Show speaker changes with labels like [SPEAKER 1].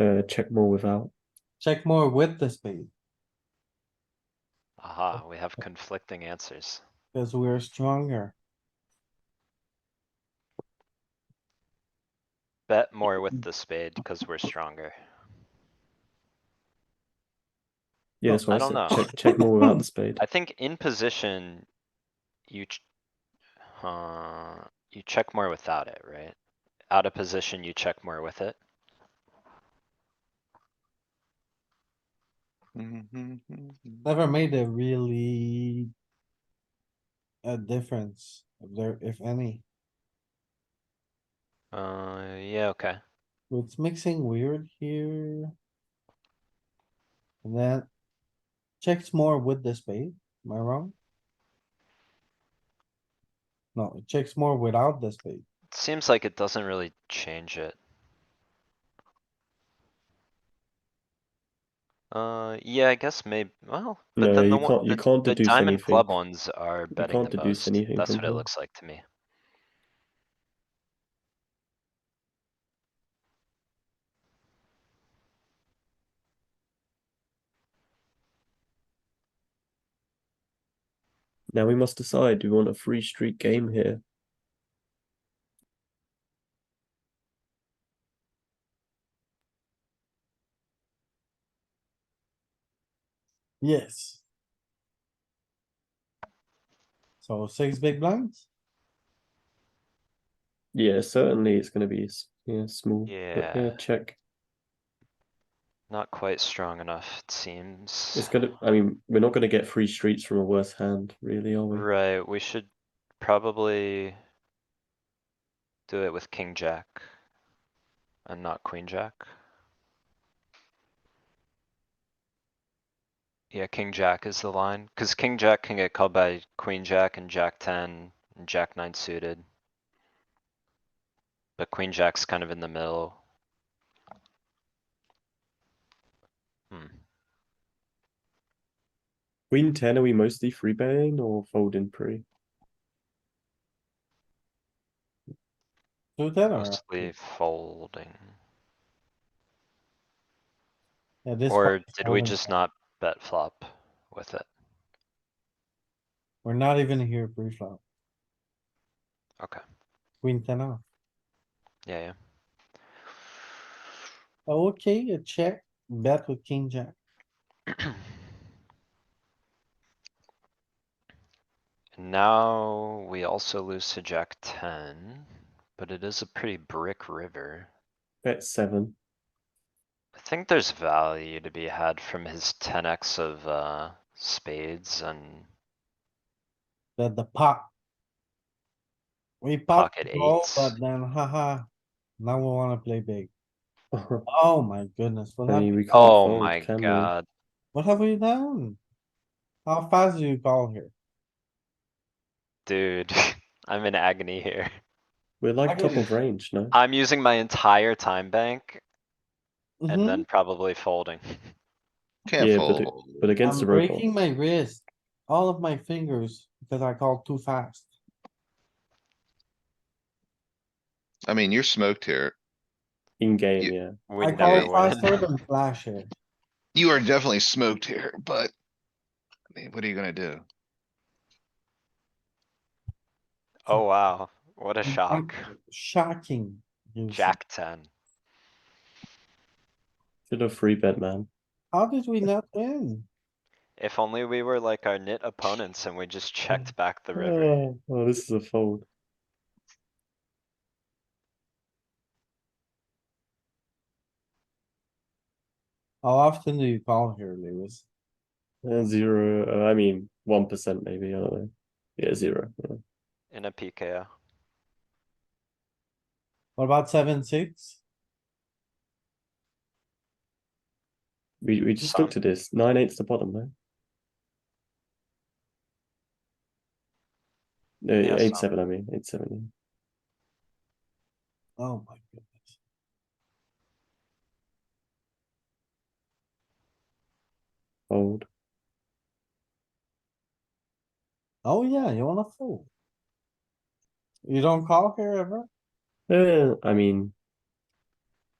[SPEAKER 1] uh, check more without.
[SPEAKER 2] Check more with the spade,
[SPEAKER 3] Aha, we have conflicting answers.
[SPEAKER 2] cause we're stronger.
[SPEAKER 3] Bet more with the spade because we're stronger.
[SPEAKER 1] Yeah, that's
[SPEAKER 3] Oh,
[SPEAKER 1] why
[SPEAKER 3] I
[SPEAKER 1] I,
[SPEAKER 3] don't
[SPEAKER 1] said
[SPEAKER 3] know.
[SPEAKER 1] check check more without the spade.
[SPEAKER 3] I think in position, you, ch- uh, you check more without it, right? Out of position, you check more with it.
[SPEAKER 2] Never made a really. A difference, if there, if any.
[SPEAKER 3] Uh, yeah, okay.
[SPEAKER 2] It's mixing weird here. And then. Checks more with the spade, am I wrong? No, it checks more without the spade.
[SPEAKER 3] Seems like it doesn't really change it. Uh, yeah, I guess maybe, well,
[SPEAKER 1] No,
[SPEAKER 3] but then
[SPEAKER 1] you
[SPEAKER 3] the one,
[SPEAKER 1] can't- you
[SPEAKER 3] the,
[SPEAKER 1] can't
[SPEAKER 3] the
[SPEAKER 1] deduce
[SPEAKER 3] diamond
[SPEAKER 1] anything.
[SPEAKER 3] club ones are betting
[SPEAKER 1] can't
[SPEAKER 3] the
[SPEAKER 1] deduce
[SPEAKER 3] most.
[SPEAKER 1] anything
[SPEAKER 3] That's
[SPEAKER 1] from
[SPEAKER 3] what it
[SPEAKER 1] them.
[SPEAKER 3] looks like to me.
[SPEAKER 1] Now we must decide. Do we want a free streak game here?
[SPEAKER 2] Yes. So six big blinds?
[SPEAKER 1] Yeah, certainly it's going to be s- yeah small. but yeah,
[SPEAKER 3] Yeah.
[SPEAKER 1] check.
[SPEAKER 3] Not quite strong enough, it seems.
[SPEAKER 1] It's gonna. I mean, we're not gonna get free streets from a worse hand, really, are we?
[SPEAKER 3] Right, we should probably do it with king jack and not queen jack. Yeah, king jack is the line, cuz king jack can get called by queen jack and jack ten and jack nine suited. But queen jack's kind of in the middle. Hmm,
[SPEAKER 1] Queen ten. Are we mostly free betting or folding pre?
[SPEAKER 2] Do that or?
[SPEAKER 3] mostly folding.
[SPEAKER 2] Yeah, this
[SPEAKER 3] Or
[SPEAKER 2] part is
[SPEAKER 3] did we
[SPEAKER 2] common.
[SPEAKER 3] just not bet flop with it?
[SPEAKER 2] We're not even here pre-flop.
[SPEAKER 3] Okay.
[SPEAKER 2] Queen ten off.
[SPEAKER 3] Yeah, yeah.
[SPEAKER 2] Okay, a check, bet with king jack.
[SPEAKER 3] And Now, we also lose to jack ten, but it is a pretty brick river.
[SPEAKER 1] Bet seven.
[SPEAKER 3] I think there's value to be had from his ten X of, uh, spades and
[SPEAKER 2] That the pot. We pot
[SPEAKER 3] Pocket
[SPEAKER 2] call,
[SPEAKER 3] eights.
[SPEAKER 2] but then haha, now we wanna play big. Oh my goodness, what
[SPEAKER 1] I mean,
[SPEAKER 2] have,
[SPEAKER 1] we can't
[SPEAKER 3] oh
[SPEAKER 1] fold,
[SPEAKER 3] my
[SPEAKER 1] can we?
[SPEAKER 3] god,
[SPEAKER 2] what have we done? How fast do you call here?
[SPEAKER 3] dude. I'm in agony here.
[SPEAKER 1] We're like top
[SPEAKER 2] Okay.
[SPEAKER 1] of range, no?
[SPEAKER 3] I'm using my entire time bank and
[SPEAKER 2] Mhm,
[SPEAKER 3] then probably folding.
[SPEAKER 1] Yeah,
[SPEAKER 4] Can't
[SPEAKER 1] but it-
[SPEAKER 4] fold.
[SPEAKER 1] But against
[SPEAKER 2] I'm
[SPEAKER 1] the robot.
[SPEAKER 2] breaking my wrist, all of my fingers, because I called too fast.
[SPEAKER 4] I mean, you're smoked here.
[SPEAKER 1] In game,
[SPEAKER 4] You-
[SPEAKER 1] yeah.
[SPEAKER 3] We
[SPEAKER 2] I
[SPEAKER 3] never
[SPEAKER 2] called
[SPEAKER 4] call
[SPEAKER 3] win.
[SPEAKER 2] faster than flash here.
[SPEAKER 4] You are definitely smoked here, but. I mean, what are you gonna do?
[SPEAKER 3] Oh, wow, what a
[SPEAKER 2] I'm-
[SPEAKER 3] shock.
[SPEAKER 2] Shocking. you see.
[SPEAKER 3] Jack ten.
[SPEAKER 1] Should have free bet, man.
[SPEAKER 2] How did we not win?
[SPEAKER 3] If only we were like our knit opponents and we just checked back the river.
[SPEAKER 1] Oh, oh, this is a fold.
[SPEAKER 2] How often do you call here, Lewis?
[SPEAKER 1] Uh, zero. Uh, I mean, one percent maybe. I don't know. Yeah, zero. Yeah.
[SPEAKER 3] In a PKO.
[SPEAKER 2] What about seven, six?
[SPEAKER 1] We we just
[SPEAKER 3] Some-
[SPEAKER 1] looked at this. Nine eighths the bottom though. No,
[SPEAKER 3] Yeah,
[SPEAKER 1] eight
[SPEAKER 3] some.
[SPEAKER 1] seven. I mean, eight seven. yeah.
[SPEAKER 2] Oh my goodness.
[SPEAKER 1] Fold.
[SPEAKER 2] Oh yeah, you wanna fold. You don't call here ever?
[SPEAKER 1] Uh, I mean,